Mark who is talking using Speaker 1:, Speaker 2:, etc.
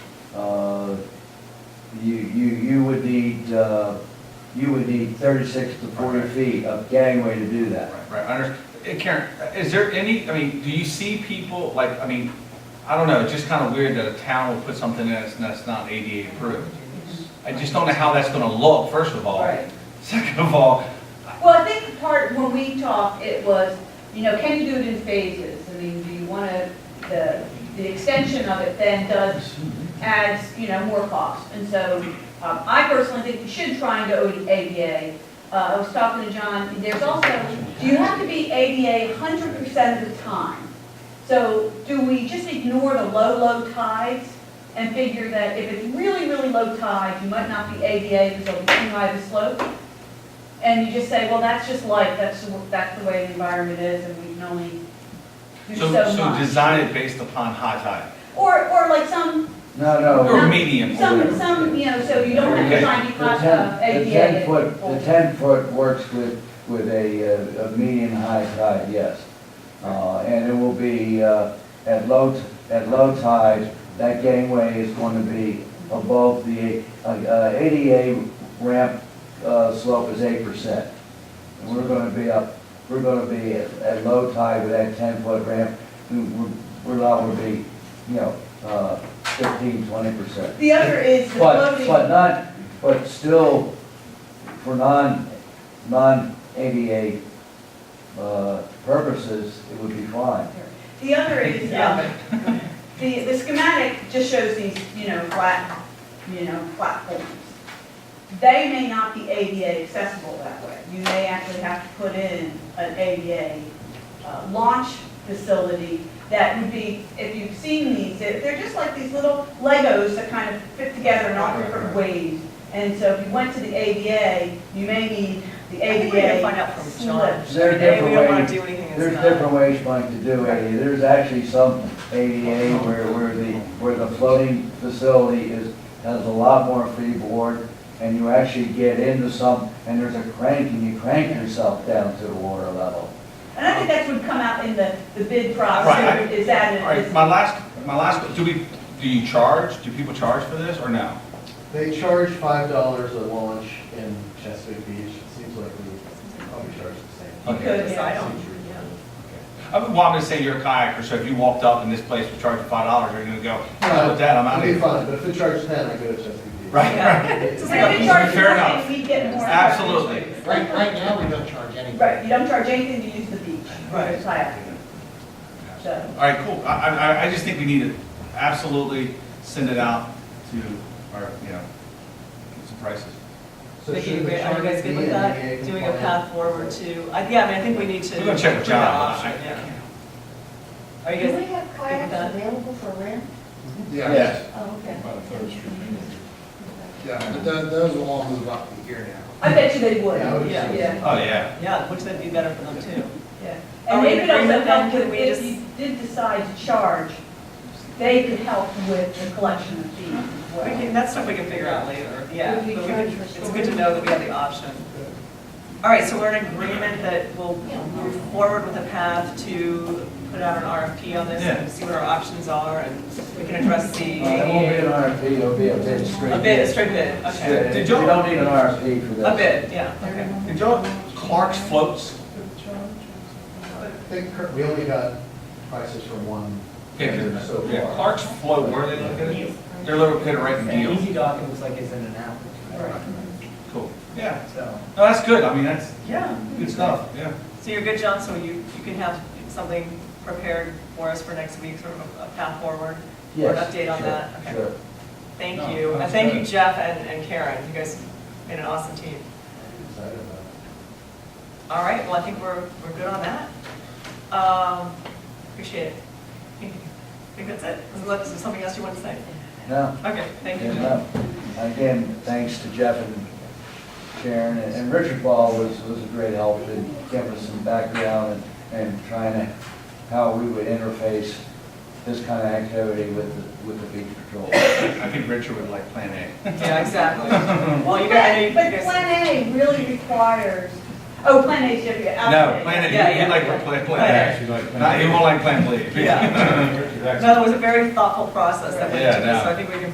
Speaker 1: Uh, you, you, you would need, uh, you would need thirty-six to forty feet of gangway to do that.
Speaker 2: Right, right, I under, eh, Karen, is there any, I mean, do you see people, like, I mean, I don't know, it's just kind of weird that a town will put something in that's, that's not ADA approved. I just don't know how that's gonna look, first of all.
Speaker 3: Right.
Speaker 2: Second of all,
Speaker 3: Well, I think the part, when we talked, it was, you know, can you do it in phases? I mean, do you want to, the, the extension of it then does, adds, you know, more cost. And so, um, I personally think we should try and go ADA. Uh, I was talking to John, there's also, do you have to be ADA hundred percent of the time? So do we just ignore the low, low tides and figure that if it's really, really low tide, you might not be ADA because it'll be too high of a slope? And you just say, well, that's just life, that's, the- that's the way the environment is, and we can only do
Speaker 2: so,
Speaker 3: so much.
Speaker 2: so design it based upon high tide,
Speaker 3: Or, or like some,
Speaker 1: No, no.
Speaker 2: or medium, or
Speaker 3: Oh, some,
Speaker 2: whatever.
Speaker 3: some, you know, so you don't have to
Speaker 2: Okay.
Speaker 3: try and
Speaker 1: The
Speaker 3: be class uh,
Speaker 1: ten,
Speaker 3: of
Speaker 1: the
Speaker 3: ADA.
Speaker 1: ten foot, the ten foot works with, with a, uh, a medium high tide, yes. Uh, and it will be, uh, at low, t- at low tide, that gangway is going to be above the, uh, uh, ADA ramp, uh, slope is eight percent. And we're gonna be up, we're gonna be at, at low tide with that ten foot ramp, we- we're, we're allowed to be, you know, uh, fifteen, twenty percent.
Speaker 3: The other is the
Speaker 1: But, but
Speaker 3: floating,
Speaker 1: not, but still, for non, non-ADA, uh, purposes, it would be fine.
Speaker 3: the other is, um, the, the schematic just shows these, you know, flat, you know, platforms. They may not be ADA accessible that way. You may actually have to put in an ADA uh, launch facility that would be, if you've seen these, they're they're just like these little Legos that kind of fit together in all different ways. And so if you went to the ADA, you may need the
Speaker 4: I think we need to
Speaker 3: ADA
Speaker 4: find out from John.
Speaker 3: slip.
Speaker 1: There are
Speaker 4: Maybe we don't wanna
Speaker 1: different ways,
Speaker 4: do anything
Speaker 1: there's
Speaker 4: that's not-
Speaker 1: different ways, Mike, to do ADA. There's actually some ADA where, where the, where the floating facility is, has a lot more freeboard, and you actually get into some, and there's a crank, and you crank yourself down to the water level.
Speaker 3: And I think that's would come out in the, the bid process,
Speaker 2: Right.
Speaker 3: is that,
Speaker 2: All
Speaker 3: is
Speaker 2: right, my last, my last, do we, do you charge, do people charge for this, or no?
Speaker 5: They charge five dollars a launch in Chesapeake Beach, it seems like we probably charge the same.
Speaker 2: Okay.
Speaker 3: Good, yeah.
Speaker 4: I don't, yeah.
Speaker 2: I mean, well, I'm gonna say you're a kayaker, so if you walked up and this place was charging five dollars, you're gonna go, "Hell with that, I'm out of
Speaker 5: It'd be
Speaker 2: here.
Speaker 5: fine, but if it charges ten, I go to Chesapeake Beach.
Speaker 2: Right, right.
Speaker 3: If
Speaker 2: like a-
Speaker 3: we charge
Speaker 2: fair
Speaker 3: more,
Speaker 2: enough.
Speaker 3: we get more.
Speaker 2: Absolutely.
Speaker 6: Right, right now, we don't charge anything.
Speaker 3: Right, you don't charge anything to use the beach,
Speaker 2: Right.
Speaker 3: it's high up, so.
Speaker 2: All right, cool. I, I, I- I just think we need to absolutely send it out to our, you know, get some prices.
Speaker 5: So
Speaker 4: Vicky,
Speaker 5: should the
Speaker 4: are you guys
Speaker 5: charge be
Speaker 4: good
Speaker 5: an
Speaker 4: with that,
Speaker 5: ADA
Speaker 4: doing a
Speaker 5: compliant?
Speaker 4: path forward to, I- yeah, I mean, I think we need to.
Speaker 2: We're gonna check with
Speaker 4: look at that
Speaker 2: John. I-
Speaker 4: option,
Speaker 2: I
Speaker 4: yeah.
Speaker 2: can't-
Speaker 4: Are you
Speaker 7: Do
Speaker 4: guys,
Speaker 7: we have kayaks available for rent?
Speaker 6: Yeah,
Speaker 7: Oh, okay.
Speaker 6: yeah, but tho- those will all move up to here now.
Speaker 3: I bet you they would,
Speaker 5: Yeah, I would
Speaker 3: yeah,
Speaker 4: assume
Speaker 3: yeah.
Speaker 2: Oh, yeah.
Speaker 4: yeah, which that'd be better for them too. Are
Speaker 3: And
Speaker 4: we
Speaker 3: they
Speaker 4: in
Speaker 3: could also
Speaker 4: agreement
Speaker 3: help
Speaker 4: then? Can
Speaker 3: with,
Speaker 4: we
Speaker 3: if
Speaker 4: just-
Speaker 3: you did decide to charge, they could help with the collection of fees as
Speaker 4: We
Speaker 3: well.
Speaker 4: can, that's stuff we can figure out later, yeah.
Speaker 7: Would we
Speaker 4: but we
Speaker 7: charge
Speaker 4: can-
Speaker 7: for
Speaker 4: It's good to know that we have the option. All right, so we're in agreement that we'll move forward with a path to put out an RFP on this and see what our options are, and we can address the
Speaker 1: Uh, It won't be an
Speaker 4: ADA.
Speaker 1: RFP, it'll be a bid straight.
Speaker 4: A bid, a straight bid, okay.
Speaker 1: Yeah,
Speaker 2: Did
Speaker 1: You
Speaker 2: y'all-
Speaker 1: don't need an RFP for this.
Speaker 4: A bid, yeah, okay.
Speaker 2: Did y'all, Clark's floats?
Speaker 5: I think cur- we only got prices from one
Speaker 2: Yeah,
Speaker 5: vendor so
Speaker 2: yeah,
Speaker 5: far.
Speaker 2: Clark's float, where are they located? They're located right in Deal.
Speaker 8: Easy Doc, it looks like it's in and out,
Speaker 2: Cool. Yeah.
Speaker 8: so.
Speaker 2: No, that's good. I mean, that's
Speaker 4: Yeah.
Speaker 2: good stuff, yeah.
Speaker 4: So you're good, John, so you, you can have something prepared for us for next week, sort of a- a path forward? or an
Speaker 1: Yes,
Speaker 4: update on
Speaker 1: sure,
Speaker 4: that? Okay.
Speaker 1: sure.
Speaker 4: Thank
Speaker 2: No,
Speaker 4: you, and
Speaker 2: that's
Speaker 4: thank you
Speaker 2: good.
Speaker 4: Jeff and, and Karen, you guys made an awesome team.
Speaker 5: Excited about it.
Speaker 4: All right, well, I think we're, we're good on that. Um, appreciate it. I think that's it, unless there's something else you want to say?
Speaker 1: No,
Speaker 4: Okay, thank
Speaker 1: yeah,
Speaker 4: you. Jeff.
Speaker 1: no. Again, thanks to Jeff and Sharon, and- and Richard Ball was, was a great help in giving us some background and, and trying to, how we would interface this kind of activity with, the- with the beach patrol.
Speaker 2: I think Richard would like Plan A.
Speaker 4: Yeah, exactly. Well, you guys, I know
Speaker 3: But, but
Speaker 4: you guys-
Speaker 3: Plan A really requires, oh, Plan A, should be
Speaker 2: No, Plan A,
Speaker 4: Yeah,
Speaker 2: he'd- he'd
Speaker 4: yeah.
Speaker 2: like to play
Speaker 4: Plan
Speaker 2: Plan A. No, He won't like Plan B.
Speaker 4: Yeah.
Speaker 2: Richard,
Speaker 4: no, it was a very thoughtful process that went
Speaker 2: Yeah,
Speaker 4: into this,
Speaker 2: no.
Speaker 4: so I think we can